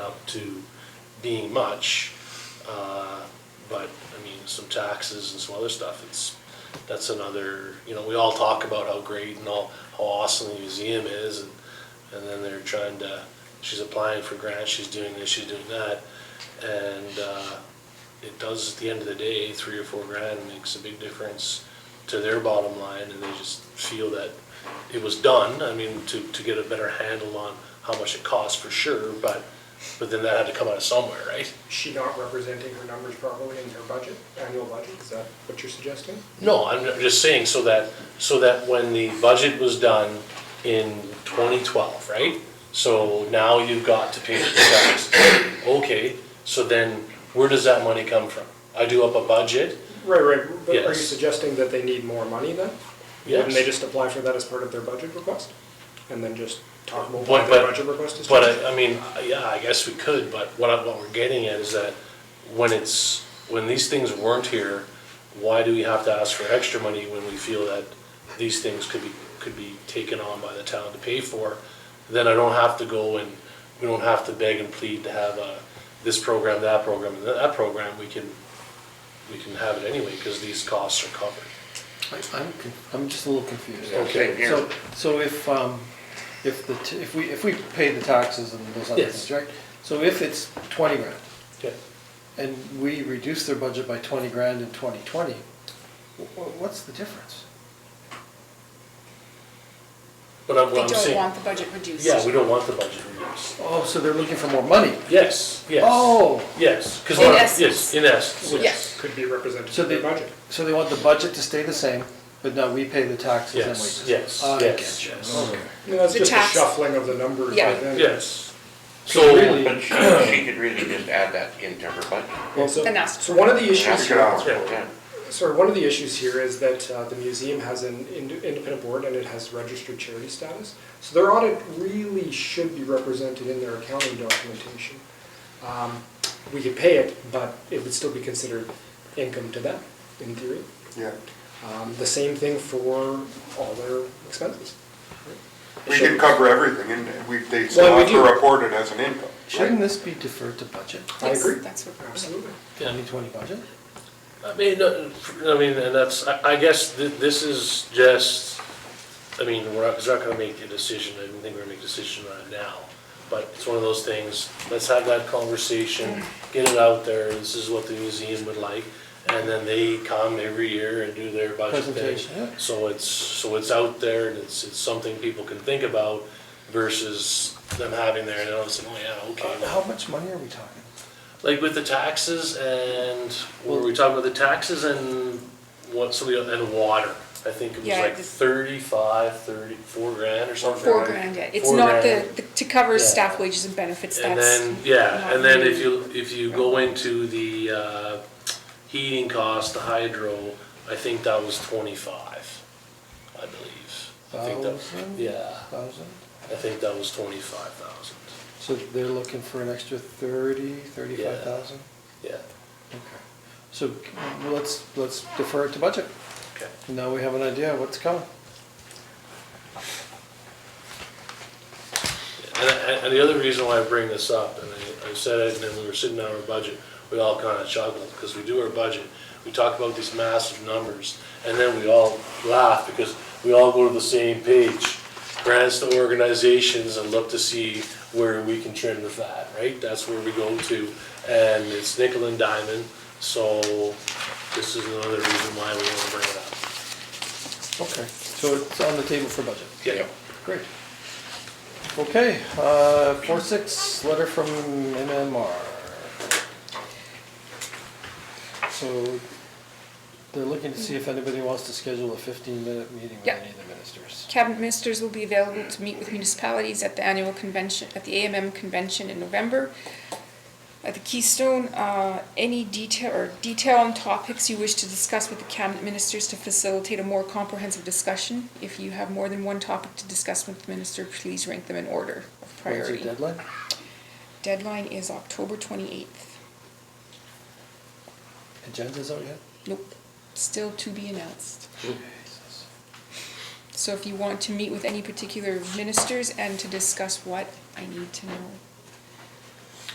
to being much. uh, But, I mean, some taxes and some other stuff, it's, that's another, you know, we all talk about how great and all, how awesome the museum is and, and then they're trying to, she's applying for grants, she's doing this, she's doing that. And uh, it does, at the end of the day, three or four grand makes a big difference to their bottom line and they just feel that it was done, I mean, to, to get a better handle on how much it costs for sure, but, but then that had to come out of somewhere, right? Is she not representing her numbers properly in her budget, annual budget? Is that what you're suggesting? No, I'm I'm just saying so that, so that when the budget was done in 2012, right? So now you've got to pay the taxes. Okay, so then where does that money come from? I do up a budget? Right, right. But are you Yes. suggesting that they need more money then? Wouldn't they Yes. just apply for that as part of their budget request? And then just talk about But- what their but- budget request is? But to? I, I mean, yeah, I guess we could, but what I, what we're getting at is that when it's, when these things weren't here, why do we have to ask for extra money when we feel that these things could be, could be taken on by the town to pay for? Then I don't have to go and, we don't have to beg and plead to have a, this program, that program, and that program, we can, we can have it anyway, because these costs are covered. I- I'm, con- I'm just a little confused. Yeah, same here. So, so if, um, if the, t- if we, if we pay the taxes and those other Yes. things, right? So if it's twenty grand, Yeah. and we reduce their budget by twenty grand in twenty twenty, what's the difference? But I'm, They what I'm don't saying, want the budget reduced. yeah, we don't want the budget reduced. Oh, so they're looking for more money? Yes, yes. Oh, Yes, because, In yes, essence. in essence, Which yes. Yes. could be represented So in their they- budget. so they want the budget to stay the same, but now we pay the taxes and Yes, wages? yes, yes, I get you. yes. Okay. I mean, That's The just a tax- shuffling of the numbers by Yeah. then. Yes. So So, really- But she, she could really just add that into her budget. Well, so, And that's- so one of the issues That's here. good. Yeah. Sir, one of the issues here is that uh, the museum has an ind- independent board and it has registered charity status. So their audit really should be represented in their accounting documentation. Um, We could pay it, but it would still be considered income to them, in theory. Yeah. Um, The same thing for all their expenses. We did cover everything, and we, they Well, still we have to do. report it as an income. Shouldn't this be deferred to budget, I Yes, agree. That's what. Absolutely. twenty twenty budget? I mean, uh, I mean, and that's, I I guess thi- this is just, I mean, we're not, it's not gonna make a decision, I don't think we're gonna make a decision on it now. But it's one of those things, let's have that conversation, get it out there, this is what the museum would like. And then they come every year and do their budget thing. Presentation, yeah. So it's, so it's out there and it's, it's something people can think about versus them having there and all of a sudden, oh yeah, okay. well, How much money are we talking? like with the taxes and, were we talking about the taxes and what, so we, and water? I think it was Yeah, like this- thirty-five, thirty, four grand or something. Four grand, yeah. It's Four not the, grand. the- to cover Yeah. staff wages and benefits, And that's. then, yeah, not and then if really- you, if you go into the, uh, heating cost, the hydro, I think that was twenty-five, I believe. I think that- Thousand? Yeah, Thousand? I think that was twenty-five thousand, So they're looking for an extra thirty, thirty-five thousand? yeah, Okay. So c- well, let's, let's defer it to budget. okay. Now we have an idea of what's coming. And, and- and the other reason why I bring this up, and I, I said it, and then we were sitting down our budget, we all kind of chuckled, because we do our budget, we talk about these massive numbers, and then we all laugh, because we all go to the same page, grants to organizations, and look to see where we can trim the fat, right? That's where we go to, and it's nickel and diamond, so this is another reason why we want to bring it up. Okay. So it's on the table for budget. Yeah. Great. Okay, uh, four, six, letter from MMR. So they're looking to see if anybody wants to schedule a fifteen-minute meeting with Yeah. any of the ministers. Cabinet ministers will be available to meet with municipalities at the annual convention, at the AMM convention in November. At the Keystone, uh, any detail or detail on topics you wish to discuss with the cabinet ministers to facilitate a more comprehensive discussion. If you have more than one topic to discuss with the minister, please rank them in order of When's priority. the deadline? Deadline is October twenty-eighth. Agenda's out yet? Nope, still to be announced. So if you want to meet with any particular ministers and to discuss what, I need to know.